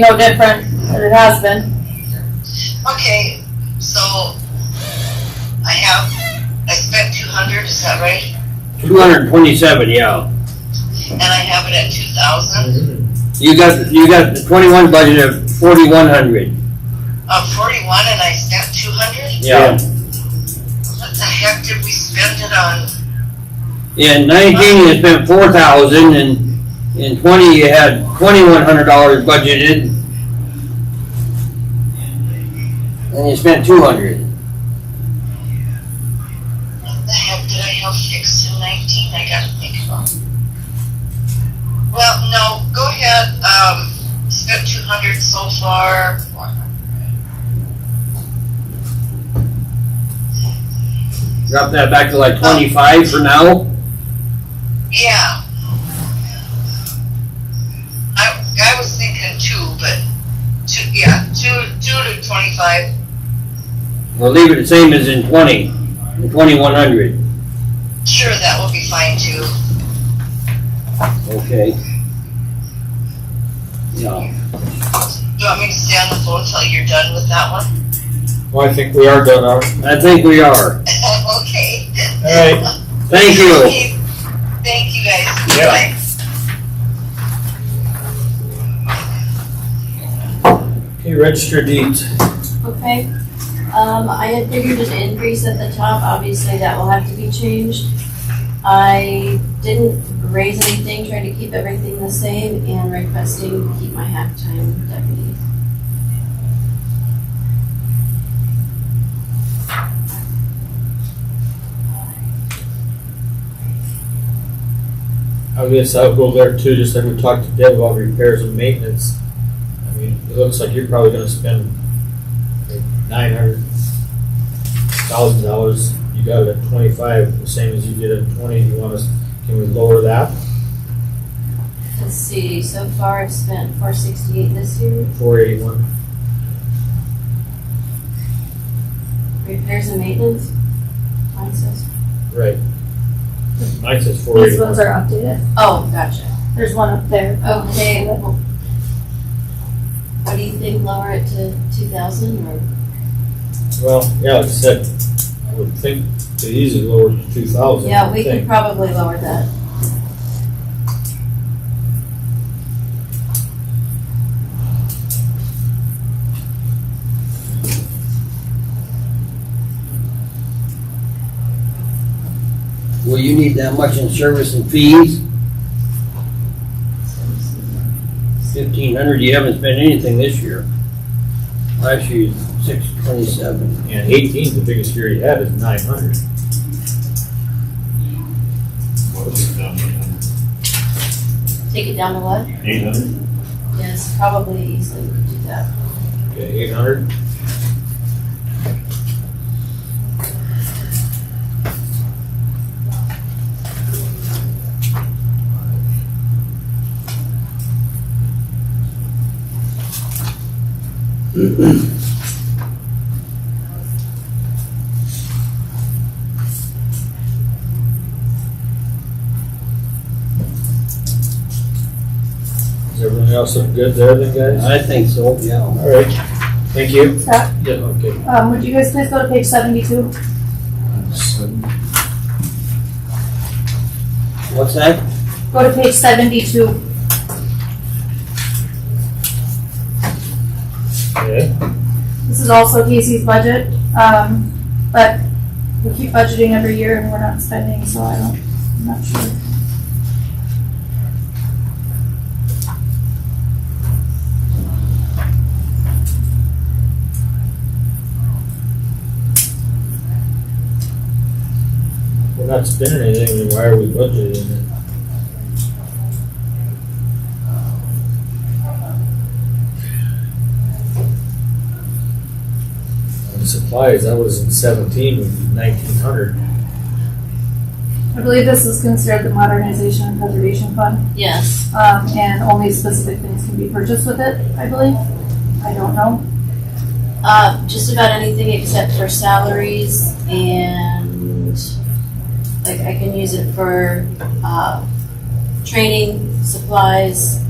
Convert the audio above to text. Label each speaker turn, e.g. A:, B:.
A: no different than it has been.
B: Okay, so I have, I spent two hundred, is that right?
C: Two hundred and twenty-seven, yeah.
B: And I have it at two thousand,
C: You got, you got the twenty-one budget of forty-one hundred.
B: uh, forty-one, and I spent two hundred?
C: Yeah.
B: What the heck did we spend it on?
C: In nineteen, you spent four thousand, and in twenty, you had twenty-one hundred dollars budgeted. And you spent two hundred.
B: What the heck did I have fixed in nineteen? I gotta think about. it. Well, no, go ahead, um, spent two hundred so far.
C: Drop that back to like twenty-five for now.
B: Yeah. I, I was thinking two, but two, yeah, two, two to twenty-five.
C: We'll leave it the same as in twenty, in twenty-one hundred.
B: Sure, that will be fine too.
C: Okay. Yeah.
B: You want me to stay on the phone till you're done with that one?
D: Well, I think we are done, aren't we?
C: I think we are.
B: Okay.
D: All
B: right.
C: Thank you.
B: Thank you guys.
D: Yeah.
B: Bye.
D: Okay, register deeds.
E: Okay, um, I had figured an increase at the top, obviously that will have to be changed. I didn't raise anything, trying to keep everything the same and requesting keep my halftime deputy.
D: I guess I'll go there too, just like we talked to Deb about repairs and maintenance. I mean, it looks like you're probably gonna spend nine hundred thousand dollars. You got it at twenty-five, the same as you did at twenty. You want us, can we lower that?
E: Let's see, so far I've spent four sixty-eight this year,
D: Four eighty-one.
E: repairs and maintenance. Mine says,
D: Right. Mine says four
F: These ones
D: eighty-one.
F: are updated.
E: oh, gotcha,
F: There's one up there.
E: okay. well, What do you think, lower it to two thousand or?
D: Well, yeah, like I said, I would think the easy lower to two thousand,
E: Yeah,
D: I
E: we
D: would
E: could
D: think.
E: probably lower that.
C: Will you need that much in service and fees? Fifteen hundred, you haven't spent anything this year. Last year, six twenty-seven.
D: And eighteen's the biggest year you had is nine hundred. um,
E: Take it down to what?
G: Eight hundred?
E: Yes, probably easily could do that.
D: Okay, eight hundred. Is everything else looking good there then, guys?
C: I think so, yeah.
D: All right, thank you.
F: Scott,
D: Yeah, okay.
F: um, would you guys please go to page seventy-two?
C: What's that?
F: Go to page seventy-two.
D: Yeah,
F: This is also Casey's budget, um, but we keep budgeting every year and we're not spending, so I don't, I'm not sure.
D: we're not spending anything, then why are we budgeting it? And Supplies, that was in seventeen, nineteen hundred.
F: I believe this is considered the modernization and preservation fund,
E: Yes.
F: um, and only specific things can be purchased with it, I believe. I don't know.
E: Uh, just about anything except for salaries and, like, I can use it for, uh, training, supplies,